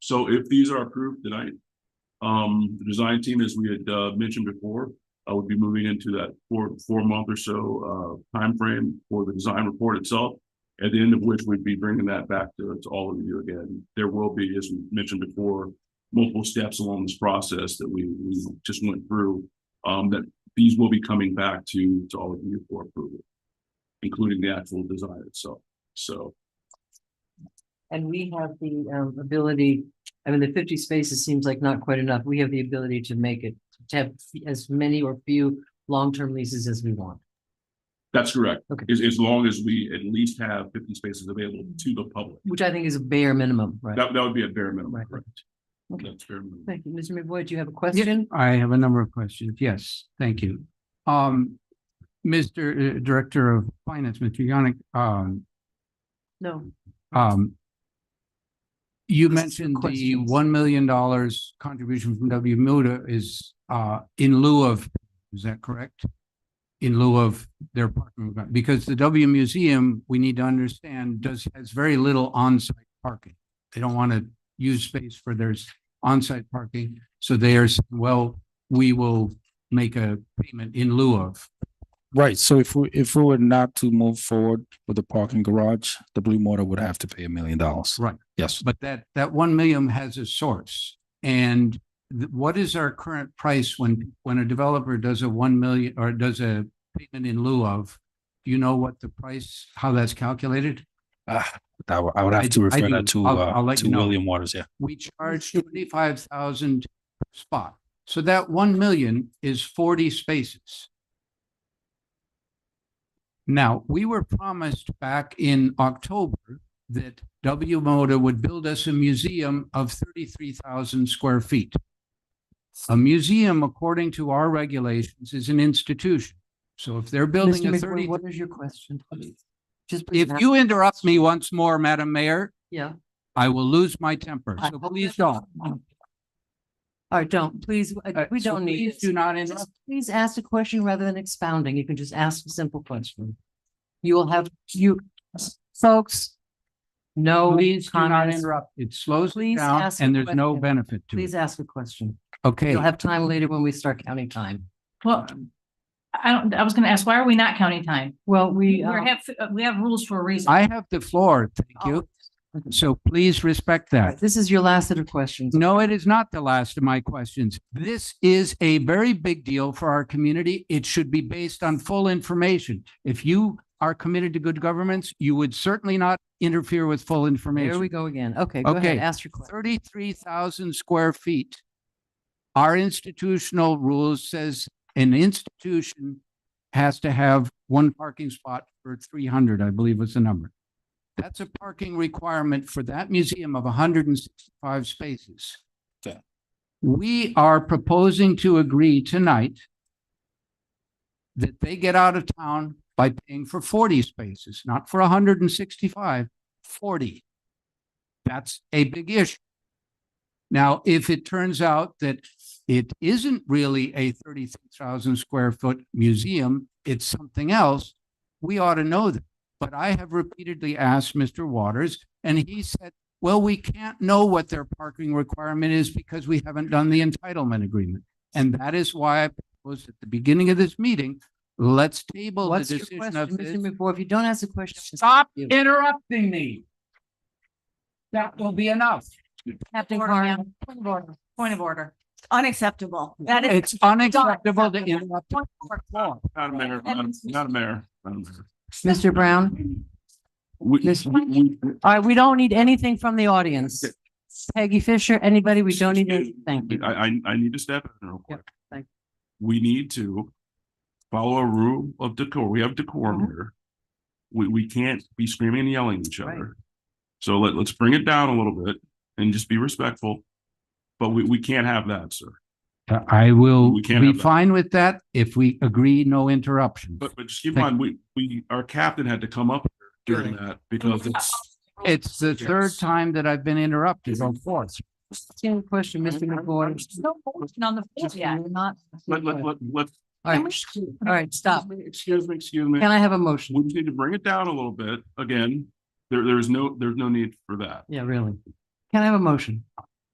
So if these are approved tonight, um, the design team, as we had, uh, mentioned before, I would be moving into that four, four month or so, uh, timeframe for the design report itself. At the end of which we'd be bringing that back to, to all of you again. There will be, as we mentioned before, multiple steps along this process that we, we just went through. Um, that these will be coming back to, to all of you for approval. Including the actual design itself, so. And we have the um ability, I mean, the fifty spaces seems like not quite enough. We have the ability to make it, to have as many or few long-term leases as we want. That's correct. Okay. As, as long as we at least have fifty spaces available to the public. Which I think is a bare minimum, right? That, that would be a bare minimum, Right. correct? Okay. That's fair. minimum. Thank you. Mr. McBoyd, do you have a question? I have a number of questions. Yes, thank you. Um, Mr. uh, Director of Finance, Mr. Yannick, um, No. um, you Those are mentioned the questions. one million dollars contribution from W Muda is, uh, in lieu of, is that correct? In lieu of their parking, requirement? because the W Museum, we need to understand, does, has very little onsite parking. They don't want to use space for their s- on-site parking, so they are, saying, well, we will make a payment in lieu of. Right, so if we, if we were not to move forward with the parking garage, the Blue Motor would have to pay a million dollars. Right. Yes, But that, that one million has a source. And th- what is our current price when, when a developer does a one million, or does a payment in lieu of? Do you know what the price, how that's calculated? uh, I would, I would I have to do- I refer do. that to, I'll- I'll uh, let to you know. William Waters, yeah. We charge twenty-five thousand spot. So that one million is forty spaces. Now, we were promised back in October that W Moda would build us a museum of thirty-three thousand square feet. A museum, according to our regulations, is an institution. So if they're building Mr. a thirty, McBoyd, what is your question? Just. please if ask- you interrupt me once more, Madam Mayor, Yeah. I will lose my temper. I So hope please that- don't. All right, don't, please, I- Uh, we so don't need. please this. Do not interrupt. Just Please ask a question rather than expounding. You can just ask a simple question. You will have, you, folks, no Please do not comments. interrupt. It slows Please it down ask a and there's no question. benefit to Please it. ask a question. Okay, You'll have time later when we start counting time. Well, I don't, I was gonna ask, why are we not counting time? Well, We we, uh, have, we have rules for a reason. I have the floor. Thank you. Oh. So please respect that. this is your last set of questions. No, it is not the last of my questions. This is a very big deal for our community. It should be based on full information. If you are committed to good governments, you would certainly not interfere with full There we information. go again. Okay, go ahead, Okay. ask your question. Thirty-three thousand square feet. Our institutional rules says an institution has to have one parking spot for three hundred, I believe was the number. That's a parking requirement for that museum of hundred and sixty-five spaces. Okay. We are proposing to agree tonight that they get out of town by paying for forty spaces, not for 165, 40. That's a big issue. Now, if it turns out that it isn't really a thirty-three thousand square foot museum, it's something else, we ought to know that. But I have repeatedly asked Mr. Waters, and he said, well, we can't know what their parking requirement is because we haven't done the entitlement agreement. And that is why I proposed at the beginning of this meeting, let's table the What's your decision question, of Mr. this. McBoy? If you don't ask a question. I'll just Stop you. interrupting me. That will be enough. Captain Order, Carn, Point of order. point of order. Unacceptable. That is, It's unacceptable to interrupt. Point of order. Madam Mayor, Madam- Madam Mayor, Madam Mayor. Mr. Brown? We, Miss- we, All right, we don't need anything from the audience. Okay. Peggy Fisher, anybody, we don't need Excuse anything. Thank you. I, I, I need to step in real quick. thank We need to follow a rule of decor. We have decorum Mhm. here. We, we can't be screaming and yelling at each Right. other. So let, let's bring it down a little bit and just be respectful. But we, we can't have that, sir. Uh, I will We can't be have that. fine with that if we agree no interruption. But, but just keep in mind, Thank- we, we, our captain had to come up here during that because it's, It's the third time that I've been interrupted or fourth. Same question, Mr. McBoy. No motion on the floor yet. You're not- let, let, let, let. All right, sh- all right, stop. Excuse me, excuse me. Can I have a motion? We need to bring it down a little bit. Again, there, there's no, there's no need for that. Yeah, really. Can I have a motion?